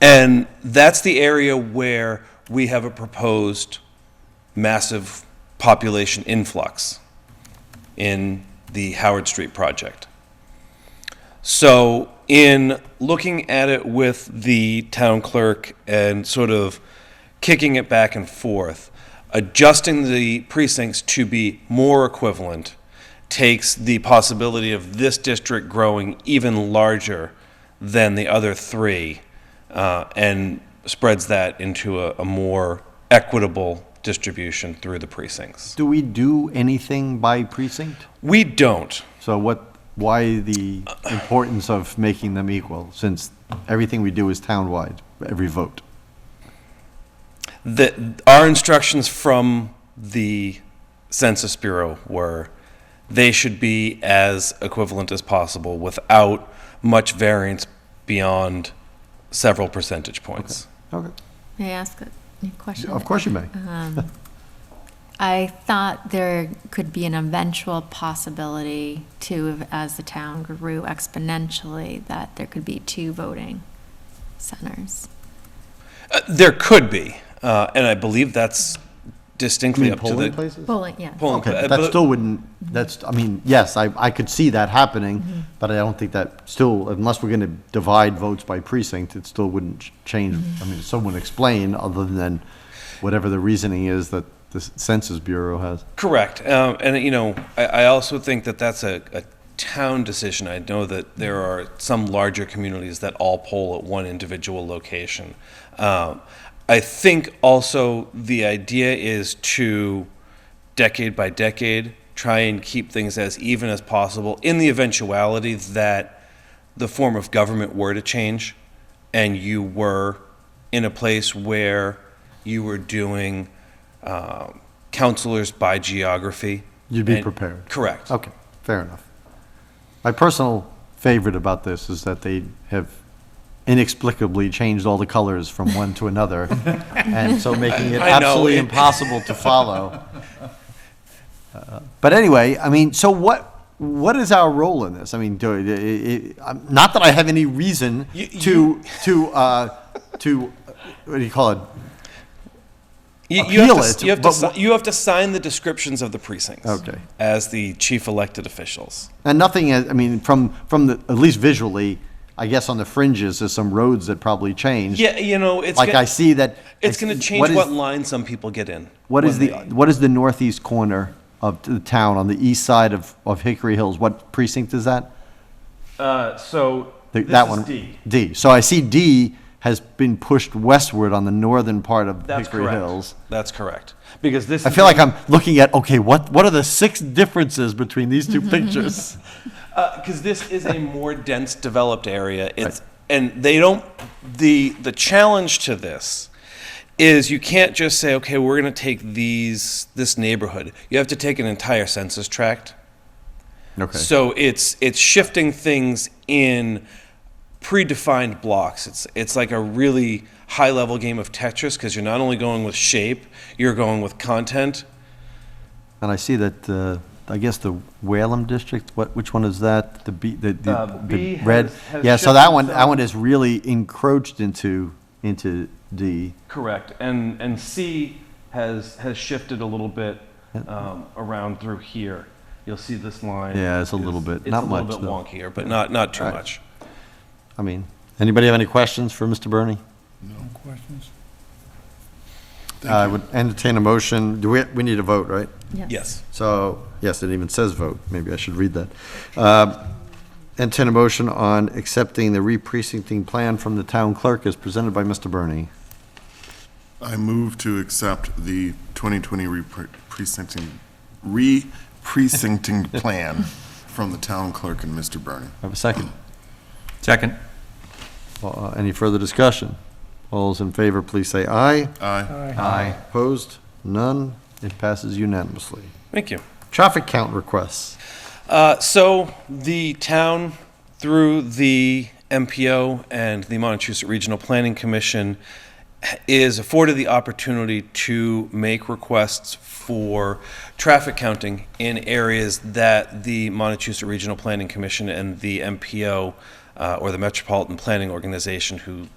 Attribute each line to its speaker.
Speaker 1: And that's the area where we have a proposed massive population influx in the Howard Street project. So, in looking at it with the town clerk and sort of kicking it back and forth, adjusting the precincts to be more equivalent takes the possibility of this district growing even larger than the other three uh, and spreads that into a, a more equitable distribution through the precincts.
Speaker 2: Do we do anything by precinct?
Speaker 1: We don't.
Speaker 2: So what, why the importance of making them equal, since everything we do is townwide, every vote?
Speaker 1: The, our instructions from the Census Bureau were they should be as equivalent as possible without much variance beyond several percentage points.
Speaker 2: Okay,
Speaker 3: May I ask a a question?
Speaker 2: of course you may.
Speaker 3: I thought there could be an eventual possibility too, of- as the town grew exponentially, that there could be two voting centers.
Speaker 1: Uh, there could be, uh, and I believe that's
Speaker 2: You
Speaker 1: distinctly
Speaker 2: mean
Speaker 1: up to the
Speaker 2: polling places?
Speaker 3: Polling, yeah.
Speaker 1: polling pla-
Speaker 2: Okay,
Speaker 1: uh,
Speaker 2: but that
Speaker 1: but-
Speaker 2: still wouldn't, that's, I mean, yes, I, I could see that happening, but I don't think that still, unless we're gonna divide votes by precinct, it still wouldn't ch- change. I mean, someone explain, other than whatever the reasoning is that the Census Bureau has.
Speaker 1: Correct. Um, and, you know, I, I also think that that's a, a town decision. I know that there are some larger communities that all poll at one individual location. Um, I think also the idea is to, decade by decade, try and keep things as even as possible in the eventuality that the form of government were to change and you were in a place where you were doing um, counselors by geography.
Speaker 2: You'd be
Speaker 1: And-
Speaker 2: prepared.
Speaker 1: Correct.
Speaker 2: Okay, fair enough. My personal favorite about this is that they have inexplicably changed all the colors from one to another, and so making it
Speaker 1: I know,
Speaker 2: absolutely
Speaker 1: it-
Speaker 2: impossible to follow. Uh, But anyway, I mean, so what, what is our role in this? I mean, do, i- i- I'm- not that I have any reason
Speaker 1: You-
Speaker 2: to, to, uh, to, what do you call it?
Speaker 1: You, you have
Speaker 2: Appeal
Speaker 1: to, s-
Speaker 2: it,
Speaker 1: you, have to
Speaker 2: but
Speaker 1: si- you have to sign the descriptions of the precincts
Speaker 2: Okay.
Speaker 1: as the chief elected officials.
Speaker 2: And nothing, has- I mean, from, from the, at least visually, I guess on the fringes, there's some roads that probably changed.
Speaker 1: Yeah, you know, it's
Speaker 2: like
Speaker 1: gonna,
Speaker 2: I see that
Speaker 1: it's going to change
Speaker 2: What
Speaker 1: what,
Speaker 2: is,
Speaker 1: line some people get in.
Speaker 2: what is
Speaker 1: when
Speaker 2: the
Speaker 1: they-
Speaker 2: what is the northeast corner of the town on the east side of, of Hickory Hills? What precinct is that?
Speaker 1: uh, so
Speaker 2: The-
Speaker 1: this
Speaker 2: that
Speaker 1: is
Speaker 2: one.
Speaker 1: D.
Speaker 2: D. So I see D has been pushed westward on the northern part of
Speaker 1: That's
Speaker 2: Hickory
Speaker 1: correct.
Speaker 2: Hills.
Speaker 1: That's correct. Because this
Speaker 2: I
Speaker 1: is
Speaker 2: feel
Speaker 1: the-
Speaker 2: like I'm looking at okay, what what are the six differences between these two pictures?
Speaker 1: because Uh, this is a more dense developed area. It's and they don't the the challenge to this is you can't just say okay we're going to take these this neighborhood. You have to take an entire census tract.
Speaker 2: Okay.
Speaker 1: So it's it's shifting things in predefined blocks. It's it's like a really high level game of Tetris because you're not only going with shape, you're going with content.
Speaker 2: And I see that uh, I guess the Whalum district. What which one is that? The B the, the,
Speaker 1: Uh,
Speaker 2: the
Speaker 1: B has-
Speaker 2: red.
Speaker 1: has
Speaker 2: yeah. So that
Speaker 1: shifted
Speaker 2: one that
Speaker 1: some.
Speaker 2: one is really encroached into into D.
Speaker 1: Correct, and, and C has, has shifted a little bit um, around through here. You'll see this line.
Speaker 2: Yeah, it's a little bit- not much,
Speaker 1: It's a
Speaker 2: though.
Speaker 1: little bit wonkier, but not, not too
Speaker 2: Right.
Speaker 1: much.
Speaker 2: I mean, anybody have any questions for Mr. Bernie?
Speaker 4: No questions?
Speaker 2: I would entertain a motion. Do we, we need a vote, right?
Speaker 1: Yes.
Speaker 2: So, yes, it even says vote. Maybe I should read that. Uh, Entertain a motion on accepting the re-precincting plan from the town clerk as presented by Mr. Bernie.
Speaker 4: I move to accept the 2020 repre- precincting, re-precincting plan from the town clerk and Mr. Bernie.
Speaker 2: Have a second.
Speaker 5: Second.
Speaker 2: Uh, Any further discussion? All those in favor, please say aye.
Speaker 4: Aye.
Speaker 2: Aye. Opposed? None. It passes unanimously.
Speaker 1: Thank you.
Speaker 2: Traffic count requests.
Speaker 1: Uh, so the town, through the MPO and the Montechusett Regional Planning Commission, is afforded the opportunity to make requests for traffic counting in areas that the Montechusett Regional Planning Commission and the MPO uh, or the Metropolitan Planning Organization, who